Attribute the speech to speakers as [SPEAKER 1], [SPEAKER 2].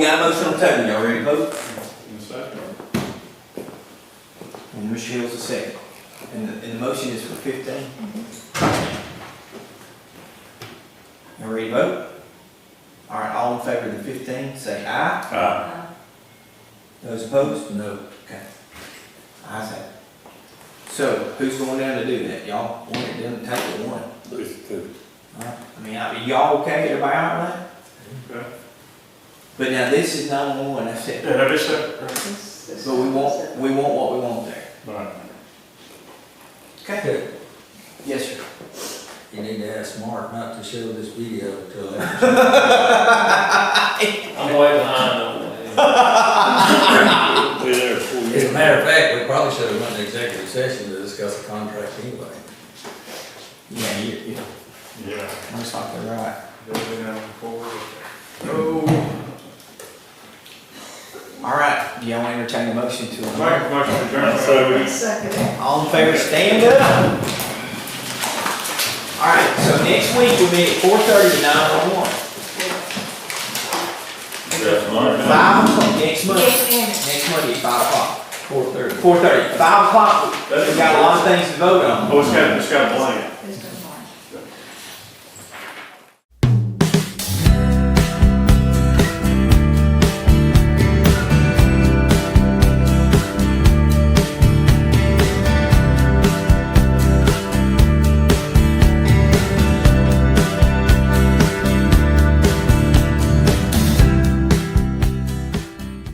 [SPEAKER 1] Got a motion on the table, y'all ready to vote? And Michelle's the second. And the, and the motion is for fifteen? Y'all ready to vote? All right, all in favor of the fifteen, say aye.
[SPEAKER 2] Aye.
[SPEAKER 1] Those opposed, no. Okay. Ayes have it. So who's going down to do that? Y'all want it done, take it one.
[SPEAKER 2] This two.
[SPEAKER 1] All right. I mean, I mean, y'all okay? Everybody all right?
[SPEAKER 2] Okay.
[SPEAKER 1] But now this is nine-one-one, that's it.
[SPEAKER 2] Yeah, that is it.
[SPEAKER 1] But we want, we want what we want there.
[SPEAKER 2] Right.
[SPEAKER 1] Okay?
[SPEAKER 3] Okay,
[SPEAKER 1] Yes, sir.
[SPEAKER 3] you need to ask Mark not to show this video until after.
[SPEAKER 4] I'm way behind on that.
[SPEAKER 2] Be there before you.
[SPEAKER 3] As a matter of fact, we probably should have went to executive session to discuss the contract anyway.
[SPEAKER 1] Yeah, you, you,
[SPEAKER 2] Yeah.
[SPEAKER 1] that's like the right.
[SPEAKER 2] Moving on forward. Oh.
[SPEAKER 1] All right, do y'all entertain a motion to adjourn?
[SPEAKER 2] Make a motion to adjourn. So we-
[SPEAKER 1] All in favor, stand up. All right, so next week we meet at four thirty to nine oh one.
[SPEAKER 2] That's mine.
[SPEAKER 1] Five o'clock next Monday.
[SPEAKER 5] Yes,
[SPEAKER 1] Next Monday, five o'clock.
[SPEAKER 3] Four thirty.
[SPEAKER 1] Four thirty. Five o'clock, we got a lot of things to vote on.
[SPEAKER 2] Oh, it's got, it's got a blank.